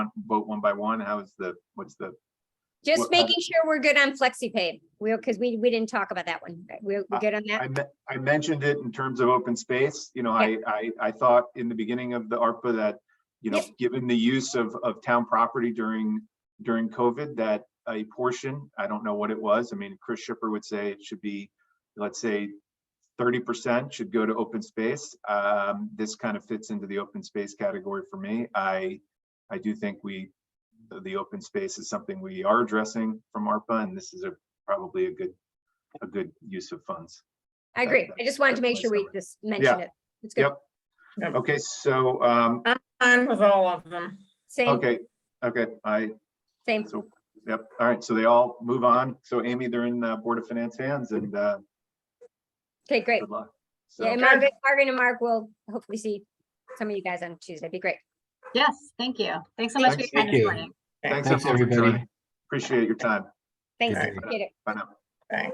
by one? How is the, what's the, Just What kind of- making sure we're good on flexi pay. We're, because we, we didn't talk about that one. We're Ah, we're good on that? I me- I mentioned it in terms of open space, you know, I, I, I thought in the beginning of the ARPA that, you know, Yep. given the use of, of town property during, during COVID, that a portion, I don't know what it was, I mean, Chris Shipper would say it should be, let's say thirty percent should go to open space. Um, this kind of fits into the open space category for me. I, I do think we, the- the open space is something we are addressing from ARPA, and this is a, probably a good, a good use of funds. I agree. I just wanted to make sure we just mentioned it. It's good. Yep. Okay, so, um, Fine with all of them. Same, okay, okay, I, same. so, yep, all right, so they all move on. So Amy, they're in uh Board of Finance hands and, uh, Okay, great. good luck. So, Yeah, and Margaret, Margaret and Mark will hopefully see some of you guys on Tuesday. Be great. Yes, thank you. Thanks so much for your Thanks. time Thank this you. morning. thanks everyone Thanks, for everybody. joining. Appreciate your time. Thanks. Okay. Appreciate it. Bye now.